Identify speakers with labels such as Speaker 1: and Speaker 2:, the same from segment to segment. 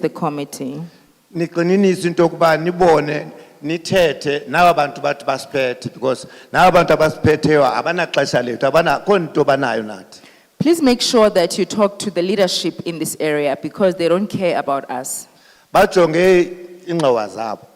Speaker 1: the committee.
Speaker 2: Niqininiso into yokuba nibone nithethe naba bantu bathi basiphethe because naba bantu abasiphetheyo abanaxesha lethu abanakho nto banayo nathi.
Speaker 1: Please make sure that you talk to the leadership in this area because they don't care about us.
Speaker 2: Bajonge ingxowa zabo.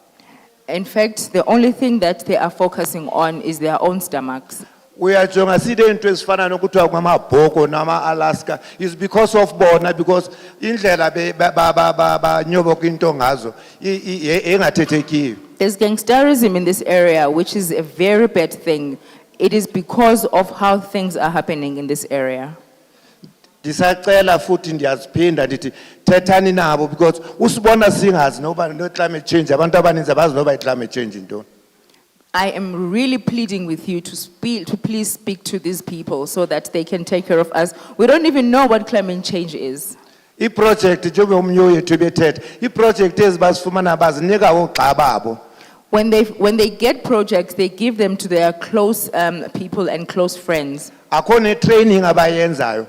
Speaker 1: In fact, the only thing that they are focusing on is their own stomachs.
Speaker 2: Uyajonga side into ezifana nokuthiwa kwamabhoko nama-Alaska is because of bona because indlela be- ba- ba- ba- ba- banyoboka into ngazo i- i- ye- engathethekiyo.
Speaker 1: There's gangsterism in this area, which is a very bad thing. It is because of how things are happening in this area.
Speaker 2: Ndisacela futhi ndiyaziphinda ndithi thethani nabo because usibona singazi noba no-climate change abantu abaninzi abazi noba i-climate change yintoni.
Speaker 1: I am really pleading with you to, speak, to please speak to these people so that they can take care of us. We don't even know what climate change is.
Speaker 2: Iprojekti njengoba omnye wethu bethetha, iprojekti ezibasifumana bazinika oogxa babo.
Speaker 1: When they, when they get projects, they give them to their close um, people and close friends.
Speaker 2: Akho ne-training abayenzayo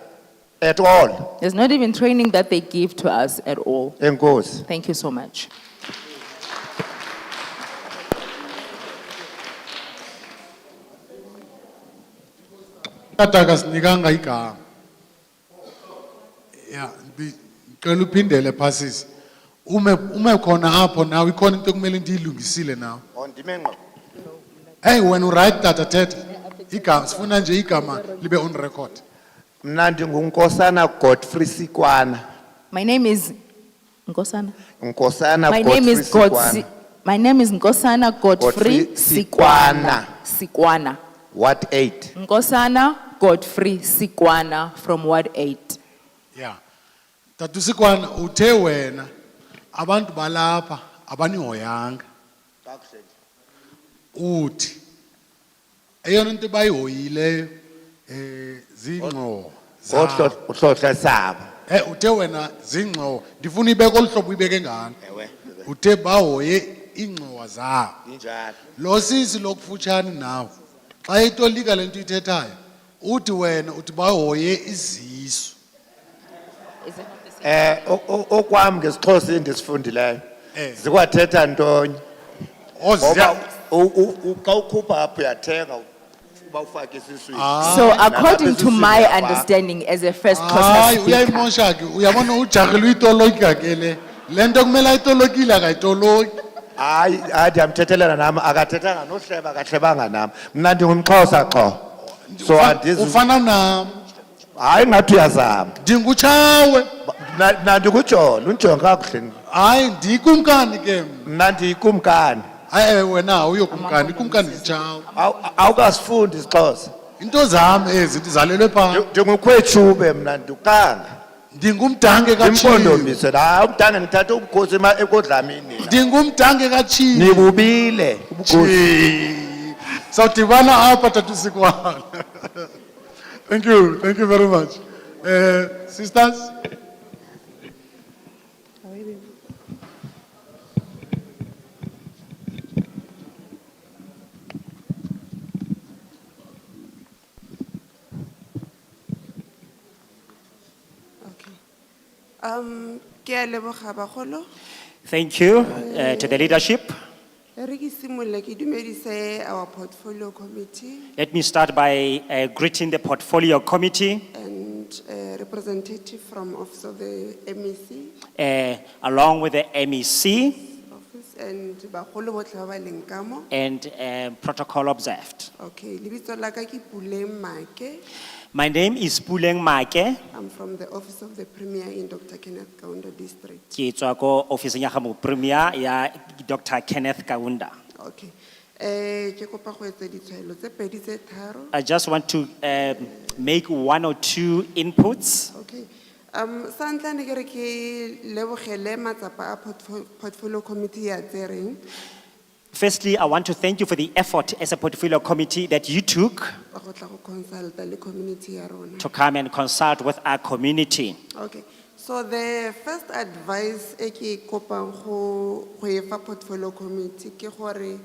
Speaker 2: at all.
Speaker 1: There's not even training that they give to us at all.
Speaker 2: Enkosi.
Speaker 1: Thank you so much.
Speaker 3: tata akasinikanga igama ya ndi- ndicela uphindele phasisi ume ume khona apho nawe ikhona into ekumele ndiyilungisile nawe
Speaker 2: Ondime Oh, ngqo.
Speaker 3: eyi wena urayithi tata thetha igama sifuna nje igama libe on record
Speaker 2: Mna ndinguNkosana Godfrey Sikwana.
Speaker 1: My name is Ngosana.
Speaker 2: Nkosana
Speaker 1: My name
Speaker 2: Godfrey
Speaker 1: is God.
Speaker 2: Sikwana.
Speaker 1: My name is Ngosana Godfrey
Speaker 2: Godfrey
Speaker 1: Sikwana. Sikwana.
Speaker 2: What eight?
Speaker 1: Ngosana Godfrey Sikwana from Ward 8.
Speaker 3: ya tata usikwana uthe wena abantu balapha abanihoyanga uthi eyona nto bayihoyileyo um ziingxowa zabo.
Speaker 2: Ngohlohla sabo.
Speaker 3: Eh uthe wena zingxo ndifuna ibeke olhlobo ibeke ngani
Speaker 2: Ewe.
Speaker 3: uthe bahoye ingxowa zawo
Speaker 2: Injalo.
Speaker 3: lo sisi lokufutshane nawe xa itolika lento ithethayo uthi wena uthi bahoye izisu
Speaker 1: Is it not the same?
Speaker 2: Eh o- o- okwam ngesixhosa endisifundileyo.
Speaker 3: Eh.
Speaker 2: Zikwathetha ntonye. Ngoba
Speaker 3: oziya
Speaker 2: u- u- u- xa ukhupha apho uyathenga uba ufake esiswini.
Speaker 1: So
Speaker 2: Nalapha
Speaker 1: according to my
Speaker 2: esiswini uyafaka.
Speaker 1: understanding as a first
Speaker 3: hayi
Speaker 1: Xhosa speaker,
Speaker 3: uyayimosha ke uyabona ujarhile uyitolika ke le le nto kumele ayitolokile akayitoloki
Speaker 2: Hayi, hayi ndiyamthethelela nam, akathethanga nohleba, akahlebanga nam. Mna ndingumXhosa xho. So andizi,
Speaker 3: ufana nam
Speaker 2: hayi ngathi uyazama.
Speaker 3: ndingutshawe
Speaker 2: Ba- mna- Mna ndikujola, unjonge kakuhle.
Speaker 3: hayi ndikumkani ke mna
Speaker 2: Mna ndiyikumkani.
Speaker 3: hayi eh, wena awuyokumkani ikumkani nditshawe
Speaker 2: Awu- Awukasifundi isiXhosa.
Speaker 3: into zam ezi ndizalelwe phaa
Speaker 2: Ndi- Ndingumkhwetshube mna ndukanga.
Speaker 3: ndingumdange katshiwo
Speaker 2: Ndimpondomise, hayi umntanga ndithathe ubukhosi ema- ekodlamini.
Speaker 3: ndingumdange katshiwo
Speaker 2: Nikubile.
Speaker 3: sawudibana apha tatusikwana thank you thank you very much um sisters
Speaker 4: Okay. Um, ke a leboga bagolo.
Speaker 5: Thank you uh, to the leadership.
Speaker 4: Re ke simolole ke dumedise our portfolio committee
Speaker 5: Let me start by uh, greeting the portfolio committee
Speaker 4: and uh, representative from Office of the E MEC
Speaker 5: uh, along with the E MEC
Speaker 4: office and bagolo botlhe ba ba leng ka mo.
Speaker 5: and uh, protocol observed.
Speaker 4: Okay, lebitso la ka ke Puleng Make.
Speaker 5: My name is Puleng Make.
Speaker 4: I'm from the Office of the Premier in Dr. Kenneth Kaunda District.
Speaker 5: Ke tswa ko office ya ga Premier ya Dr. Kenneth Kaunda.
Speaker 4: Okay. Eh, ke kopa go etsa ditshwaelo tse pedi tse tharo.
Speaker 5: I just want to um, make one or two inputs.
Speaker 4: Okay. Um, santla ne kere ki lebogele matsapa a portfo- portfolio committee ya tsereng.
Speaker 5: Firstly, I want to thank you for the effort as a portfolio committee that you took
Speaker 4: go tla go consulta le community ya rona.
Speaker 5: to come and consult with our community.
Speaker 4: Okay, so the first advice e ke kopang go go e fa portfolio committee ke gore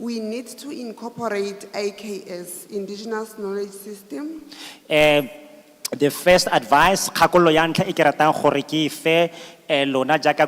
Speaker 4: we need to incorporate IKS, Indigenous Knowledge System.
Speaker 5: Eh, e the first advice, kakollo yanka ikeratan horiki fe, eh, lona jaka